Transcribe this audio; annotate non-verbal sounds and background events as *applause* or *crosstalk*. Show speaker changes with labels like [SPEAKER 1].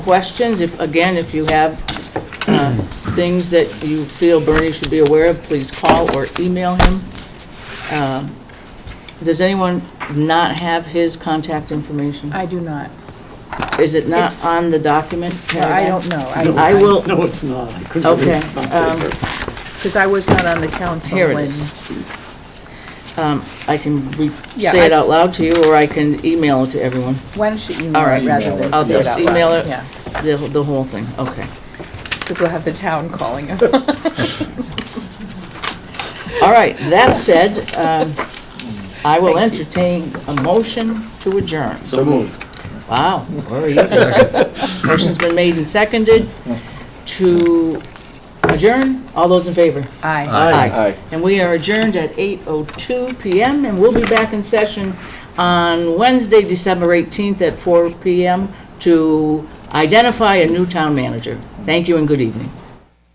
[SPEAKER 1] questions, if, again, if you have uh, things that you feel Bernie should be aware of, please call or email him. Um, Does anyone not have his contact information?
[SPEAKER 2] I do not.
[SPEAKER 1] Is it not on the document?
[SPEAKER 2] I don't know.
[SPEAKER 1] I will,
[SPEAKER 3] *laughs* No, it's not. Chris,
[SPEAKER 1] Okay,
[SPEAKER 3] it's not
[SPEAKER 1] um,
[SPEAKER 3] paper.
[SPEAKER 2] Because I was not on the council
[SPEAKER 1] Here it
[SPEAKER 2] when.
[SPEAKER 1] is. um, I can re-
[SPEAKER 2] Yeah,
[SPEAKER 1] say it
[SPEAKER 2] I-
[SPEAKER 1] out loud to you, or I can email it to everyone,
[SPEAKER 2] Why don't you email
[SPEAKER 1] All right.
[SPEAKER 2] it rather than
[SPEAKER 1] I'll
[SPEAKER 2] say it
[SPEAKER 1] just
[SPEAKER 2] out loud?
[SPEAKER 1] email it.
[SPEAKER 2] Yeah,
[SPEAKER 1] the, the whole thing, okay.
[SPEAKER 2] because we'll have the town calling him.
[SPEAKER 1] *laughs* All right, that said, um, I will
[SPEAKER 2] Thank you.
[SPEAKER 1] entertain a motion to adjourn.
[SPEAKER 4] So moved.
[SPEAKER 1] Wow.
[SPEAKER 4] Where are you?
[SPEAKER 1] *laughs* Motion's been made and seconded to adjourn. All those in favor?
[SPEAKER 2] Aye.
[SPEAKER 3] Aye.
[SPEAKER 4] Aye.
[SPEAKER 1] And we are adjourned at 8:02 PM, and we'll be back in session on Wednesday, December 18th at 4 PM to identify a new town manager. Thank you and good evening.